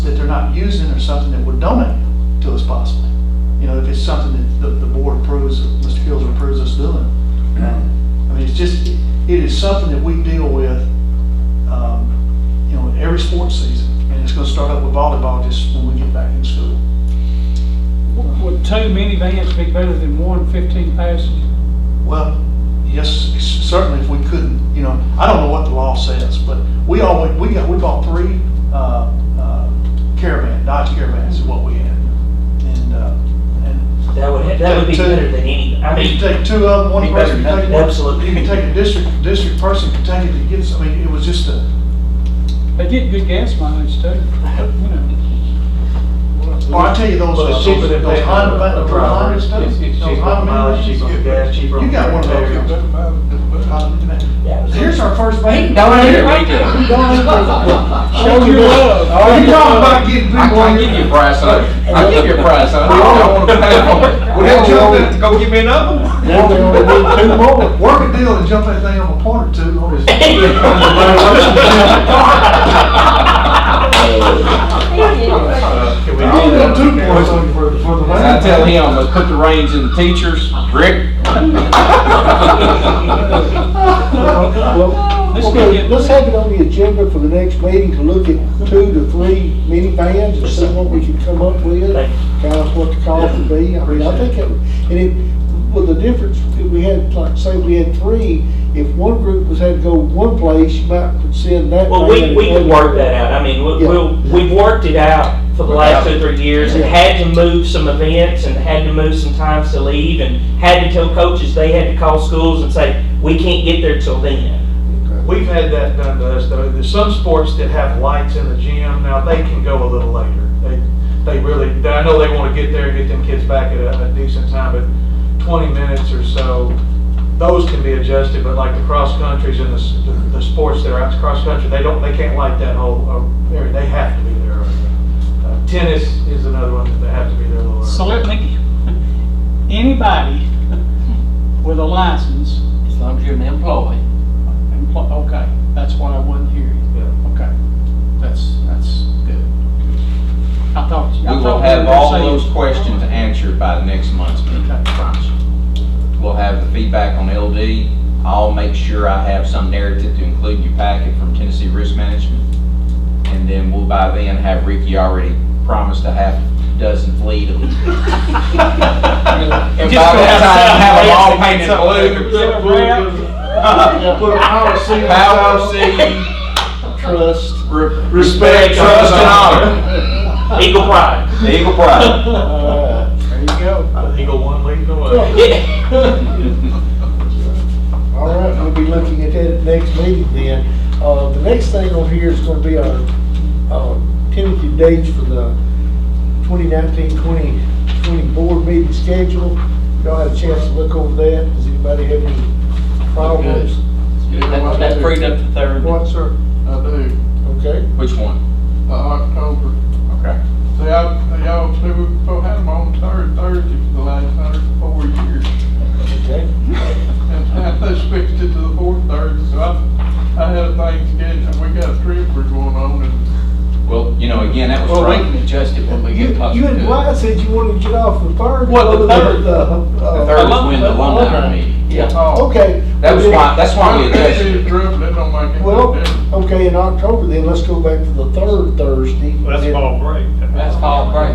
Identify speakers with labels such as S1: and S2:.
S1: that they're not using or something that would donate to us possibly. You know, if it's something that the, the board approves, or Mr. Fields approves us doing. Um, I mean, it's just, it is something that we deal with, um, you know, every sports season. And it's gonna start up with volleyball just when we get back in school.
S2: Would two minivans be better than one 15 passenger?
S1: Well, yes, c- certainly if we couldn't, you know, I don't know what the law says, but we always, we got, we bought three, uh, uh, caravan, Dodge caravans is what we had. And, uh, and
S3: That would, that would be better than any, I
S1: you
S3: mean,
S1: take two of them, one
S3: Be
S1: person can
S3: better than-
S1: take one.
S3: absolutely.
S1: You can take a district, district person can take it to get, some- I mean, it was just a,
S2: They get good gas mileage too, you know.
S1: Well, I tell you those,
S4: But
S1: those
S4: it's cheaper than
S1: those
S4: paying
S1: Honda,
S4: a- a
S1: those
S4: driver.
S1: Honda stuff,
S4: It's-
S1: those
S4: it's cheaper on
S1: Honda
S4: mileage,
S1: minivans.
S4: cheaper on gas, cheaper on
S1: You got one of
S4: repair.
S1: those.
S3: Yeah.
S1: Here's our first bank.
S2: Show your love.
S1: You talking about getting people.
S5: I can give you a price on it. I can give you a price on it. I don't want to pay for it.
S4: Well, that jump in, go give me another one.
S1: Now they only need two more. Work a deal and jump that thing on a point or two on his.
S4: Can we
S1: I
S4: do
S1: only
S4: that?
S1: got two points on for, for the.
S5: And I tell him, let's put the reins in the teachers, Rick.
S6: Well,
S2: Let's go
S6: Okay,
S2: get,
S6: let's have it on the agenda for the next meeting to look at two to three minivans and see what we can come up with,
S3: Thank
S6: kind of what the cost would be. I mean, I think, it and it, well, the difference, if we had, like, say we had three, if one group was had to go one place, you might could send that.
S3: Well, we,
S6: van
S3: we
S6: and
S3: can work that out, I mean, we-
S6: Yeah.
S3: we'll, we've worked it out for the last two, three years, and
S6: Yeah.
S3: had to move some events, and had to move some times to leave, and had to tell coaches, they had to call schools and say, we can't get there till then.
S4: We've had that done to us though. There's some sports that have lights in the gym. Now, they can go a little later. They, they really, I know they want to get there and get them kids back at a a decent time, but 20 minutes or so, those can be adjusted, but like the cross countries and the, s- the- the sports that are out cross country, they don't, they can't light that whole uh, area. They have to be there. early. Uh, Tennis is another one that they have to be there a little early.
S2: so let me, anybody with a license,
S5: As long as you're an employee.
S2: empl- okay, that's what I wasn't hearing.
S4: Yeah.
S2: Okay, that's, that's good. I thought.
S5: We will have all those questions answered by next month's meeting, I promise you. We'll have the feedback on LD. I'll make sure I have some narrative to include in your packet from Tennessee Risk Management. And then we'll by then have Ricky already promised a half dozen fleet of. And by
S2: Just go
S5: that time, have them all painted blue.
S2: Get a wrap.
S1: Put a power seal.
S5: Power C,
S6: Trust.
S5: re- respect, trust, and honor.
S3: Eagle Pride.
S5: Eagle pride.
S6: Uh, There you go.
S4: Uh, Eagle one leading the way.
S6: All right, we'll be looking at that at next meeting then. Uh, the next thing on here is gonna be our, uh, tentative dates for the 2019-2020 board meeting schedule. Y'all had a chance to look over that. Does anybody have any problems?
S7: That- That freed up the third.
S6: What, sir?
S7: I do,
S6: Okay.
S5: Which one?
S7: the October.
S5: Okay.
S7: They all, they all, they were, they had them on third Thursday for the last hundred and four years.
S6: Okay.
S7: And now they switched it to the fourth Thursday, so I, I had a thing scheduled, and we got a trip we're going on and.
S5: Well, you know, again, that was.
S7: Well, we
S5: can adjust it when
S6: You, you and Bly said you wanted to get off the third.
S7: Well, the third-
S5: The
S6: uh,
S5: third is when the alumni
S7: Alumni.
S5: meeting.
S7: Yeah.
S6: Okay.
S5: Oh. That was why, that's why we
S7: It
S5: adjusted.
S7: is rough, that don't make any
S6: Well,
S7: difference.
S6: okay, in October then, let's go back to the third Thursday.
S4: Well, That's
S6: And-
S4: fall break.
S5: That's